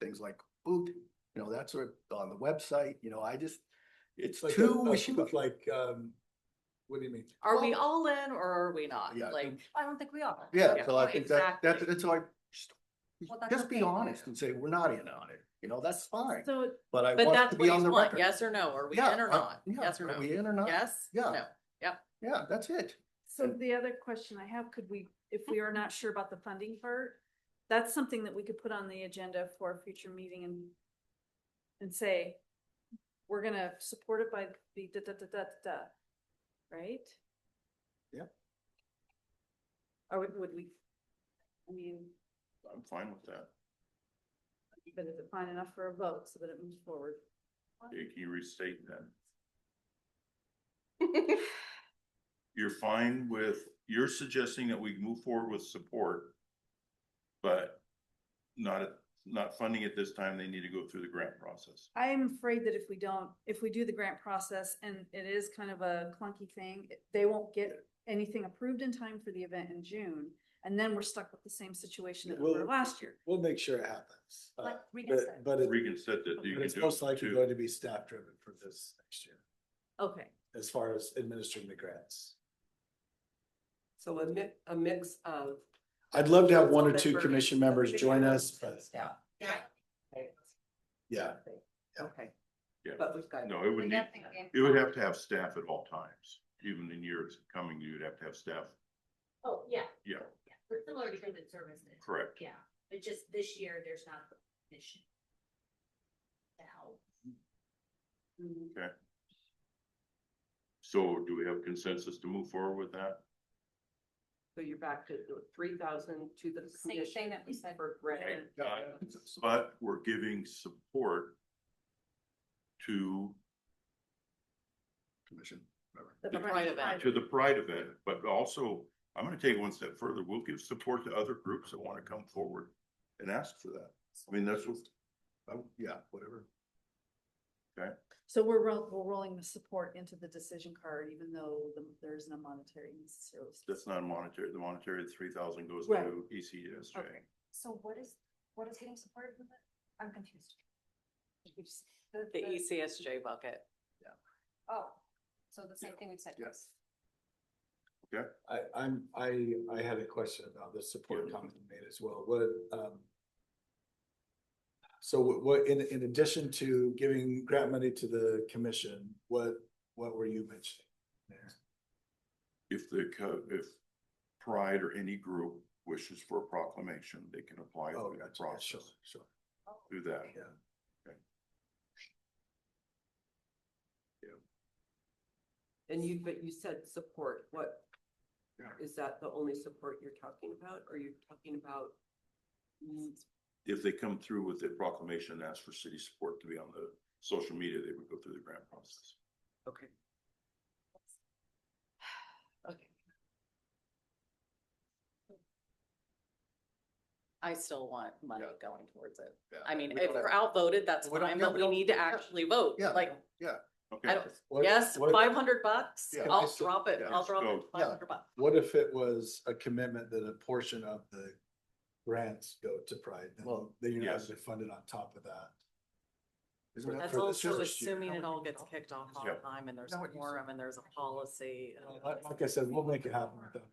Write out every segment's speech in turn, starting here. things like boot, you know, that's sort of on the website, you know, I just, it's It's like, too a- a- wishy it's like, um, what do you mean? Are we all in or are we not? Yeah, Like, I don't think we are. Yeah, so I think that, that's, Exactly. that's all I, Well, that's just be okay. honest and say, we're not in on it, you know, that's fine, So, but I but want it that's to what be on you the want, record. yes or no? Are we Yeah, in or I- not? yeah, Yes or Are no? we in or not? Yes? Yeah. No. Yeah, that's it. So And- the other question I have, could we, if we are not sure about the funding part, that's something that we could put on the agenda for a future meeting and and say, we're gonna support it by the da, da, da, da, da, da, right? Yep. Or would, would we, I mean, I'm fine with that. but is it fine enough for a vote so that it moves forward? Can you restate that? You're fine with, you're suggesting that we move forward with support, but not, not funding it this time, they need to go through the grant process. I am afraid that if we don't, if we do the grant process and it is kind of a clunky thing, it- they won't get anything approved in time for the event in June. And then we're stuck with the same situation that we were Well- last year. We'll make sure it happens. uh, Like Regan But, said. but it- Regan said that but you can it's do most it likely too. going to be staff driven for this next year, Okay, as far as administering the grants. So a mi- a mix of. I'd love to have one or But two for- commission members but- join us, but Yeah. Okay. yeah, yeah. Okay. Yeah. But we've got. No, it would need, it would have to have staff at all times, even in years coming, you'd have to have staff, Oh, yeah, yeah, but similar to human services, correct. yeah, but just this year, there's not a mission. Now, So do we have consensus to move forward with that? So you're back to three thousand to the Same commission. thing that we said. For grant. But we're giving support to, Commission, whatever. The pride event. to the pride event, but also, I'm gonna take it one step further, we'll give support to other groups that wanna come forward and ask for that. I mean, that's what, Oh, Yeah, whatever. so we're roll, we're rolling the support into the decision card, even though the- there isn't a monetary necessarily. that's not monetary, the monetary three thousand goes Right. to E ECSJ. Okay. So what is, what is getting supported with it? I'm confused. You just- The E ECSJ bucket. Oh, so the same thing we said. Yes. I, I'm, I, I had a question about the support Yeah. comment you made as well, what, um. So what- what, in, in addition to giving grant money to the commission, what, what were you mentioning? there? If the, co- if pride or any group wishes for a proclamation, they can apply Oh, through the gotcha, yeah, sure, process, sure, do that. yeah. And you, but you said support, what? Yeah. Is that the only support you're talking about, or you're talking about? mm, If they come through with a proclamation, and ask for city support to be on the social media, they would go through the grant process. Okay. Okay. I still want money Yeah. going towards it. Yeah, I mean, we if don't have- we're outvoted, that's We don't- fine, yeah, but we we don't- need to yeah. actually vote, Yeah. like, Okay. I don't, What- yes, what- five hundred bucks, Yeah. I'll drop it, Yeah. I'll drop it, So, yeah. five hundred bucks. What if it was a commitment that a portion of the grants go to Pride, then, Well, then you're not yes. gonna fund it on top of that? Isn't that That's for the also first year? assuming it all gets kicked off all the Yeah. time and there's No, a it used to- forum and there's a policy. and all Like that. like I said, we'll make it happen with them.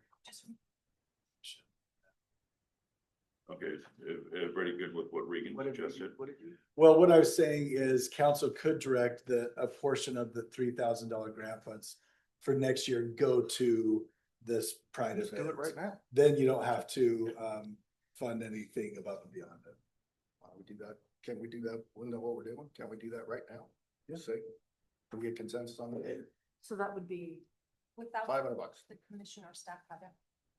Okay, is is everybody good with what Regan What did you- suggested? what did you- Well, what I was saying is council could direct that a portion of the three thousand dollar grant funds for next year go to this pride Let's do it right event. now. Then you don't have to um fund anything above and beyond it. Why don't we do that? Can we do that? We know what we're doing. Can we do that right now? Yes. Can we get consensus on that? So that would be, Without. Five hundred bucks. The commission or staff have it.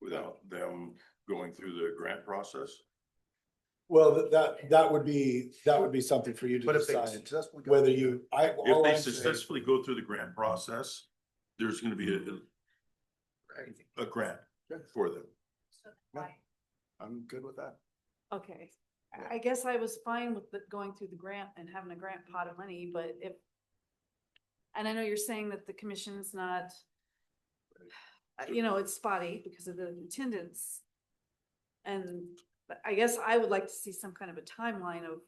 Without them going through the grant process? Well, that- that that would be, that would be something for you to But if they decide successfully. go- whether you, I. all If they I'm saying- successfully go through the grant process, there's gonna be a, Right. a grant for them. So then Yeah. why- I'm good with that. okay. I- Yeah. I guess I was fine with the- going through the grant and having a grant pot of money, but if, and I know you're saying that the commission's not, uh, you know, it's spotty because of the attendance. And but I guess I would like to see some kind of a timeline of